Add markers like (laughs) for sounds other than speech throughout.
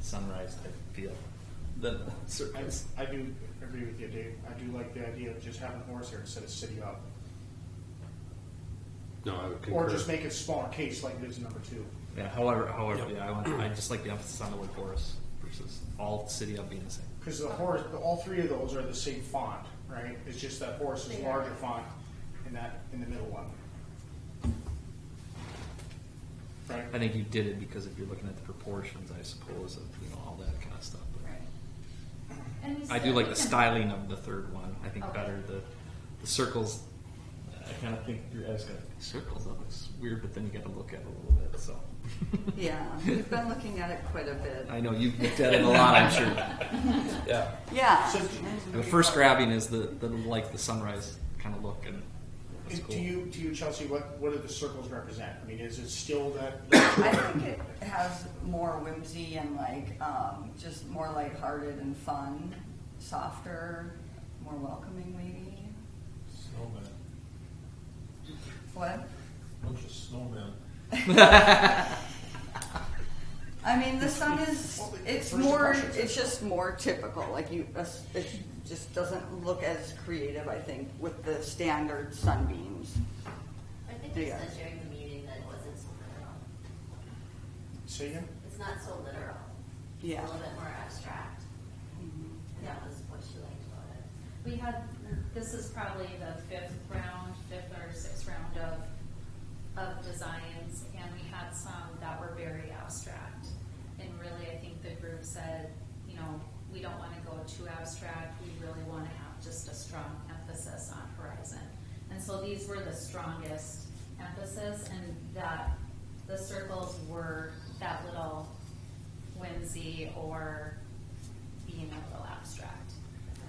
sunrise type feel (laughs) than a I, circus. I do agree with you, Dave. I do like the idea of just having horse here instead of city up. No, I would concur. Or just make it smaller case like it is in number two. Yeah, however, however, yeah, I, want, I just like the emphasis on the word chorus versus all city up being the same. Because the horse, all three of those are the same font, right? It's just that horse is They are. larger font in that, in the middle one. Right? I think you did it because if you're looking at the proportions, I suppose, of you know all that kind of stuff. But Right. And we I do said like we can- the styling of the third one. I think Okay. better the the circles. I kind of think your eyes got circles up. It's weird, but then you got to look at it a little bit. So Yeah, (laughs) we've been looking at it quite a bit. I know you've looked at it a lot. I'm sure. Yeah. Yeah. So- The first grabbing is the, the like the sunrise kind of look and it's And cool. To you, to you, Chelsea, what, what do the circles represent? I mean, is it still that? I think it has more whimsy and like, um, just more lighthearted and fun, softer, more welcoming maybe. Snowman, What? bunch of snowmen. (laughs) I mean, the sun is, Well, the it's first more, impressions it's are- just more typical, like you, uh, it just doesn't look as creative, I think, with the standard sunbeams. I think we Yeah. said during the meeting that it wasn't so literal. See you? It's not so literal. Yeah. Mm-hmm. It's a little bit more abstract. And that was what she liked about it. We had, this is probably the fifth round, fifth or sixth round of, of designs, and we had some that were very abstract. And really, I think the group said, you know, we don't wanna go too abstract, we really wanna have just a strong emphasis on horizon. And so these were the strongest emphasis, and that, the circles were that little whimsy or being a little abstract.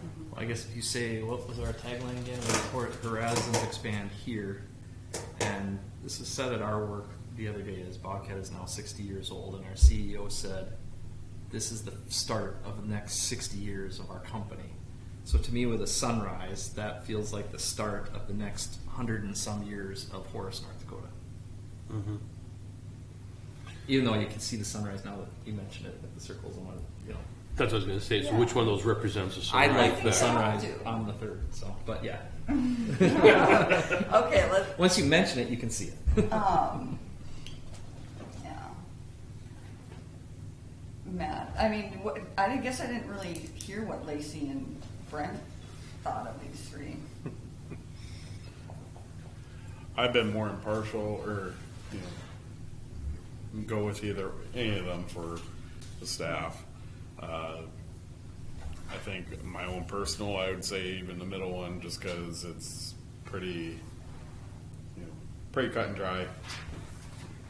Mm-hmm. Well, I guess if you say what was our tagline again? It was "Hor- Horizons expand here, and this is said at our work the other day. Is Bobcat is now 60 years old, and our CEO said this is the start of the next 60 years of our company. So to me, with a sunrise, that feels like the start of the next hundred and some years of Horace, North Dakota. Mm-hmm. Mhm. Even though you can see the sunrise now that you mentioned it, with the circles and what you know. That's what I was going to say. So, which one of those represents the I sunrise? like the better? sunrise do. on the third, so but yeah. (laughs) Okay, let's, (laughs) Once you mention it, you can see it. Um, yeah. Matt, I mean, what, I didn't- guess I didn't really hear what Lacey and Brent thought of these three. I've been more impartial or, you know, go with either, any of them for the staff. Uh, I think my own personal, I would say even the middle one, just cause it's pretty, you know, pretty cut and dry.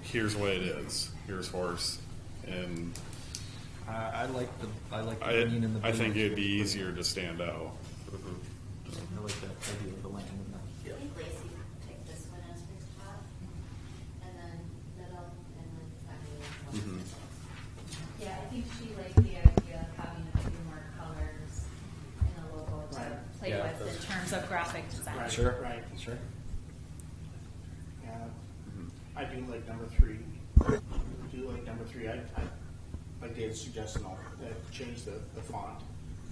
Here's what it is, here's horse, and (laughs) I, I like the I like the I, green and the blue. I think it'd be easier to stand out. I like that idea of the land and the I think Lacey picked this one as her top, and then middle, and then finally. Mm-hmm. Mhm. Yeah, I think she liked the idea of having a few more colors in a logo Right. to play Yeah, with in that's- terms of graphic design. Right, Sure. Right. sure. Yeah, I do like number three. I do like number three. I, I like David's suggestion, I'll uh, change the, the font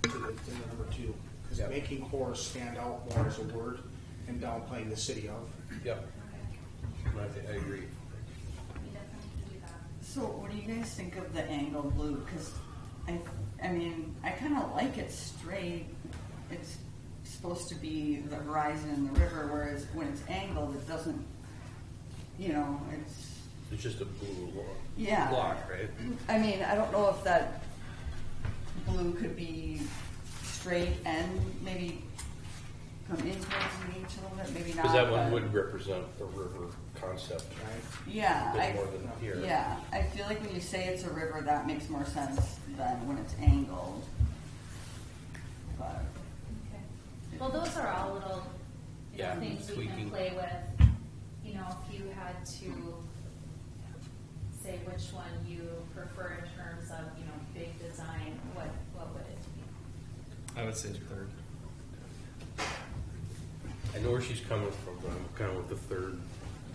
to the, to the number two. Yep. Because making horse stand out more as a word and downplaying the city of. Yep, I agree. We definitely can do that. So what do you guys think of the angle blue? Cause I, I mean, I kinda like it straight. It's supposed to be the horizon and the river, whereas when it's angled, it doesn't, you know, it's, It's just a blue block. Yeah. Block, right? I mean, I don't know if that blue could be straight and maybe come inwards in each a little bit, maybe not. Because that one but- would represent the river concept a Yeah, bit more I, than here. yeah, I feel like when you say it's a river, that makes more sense than when it's angled. But, Okay. Well, those are all little, you know, Yeah, things we tweaking. can play with. You know, if you had to say which one you prefer in terms of, you know, big design, what, what would it be? I would say the third. I know where she's coming from, but I'm kind of with the third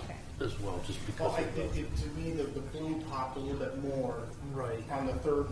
Okay. as well, just Well, because I of the. think it, to me, the, the blue popped a little bit more Right. on the third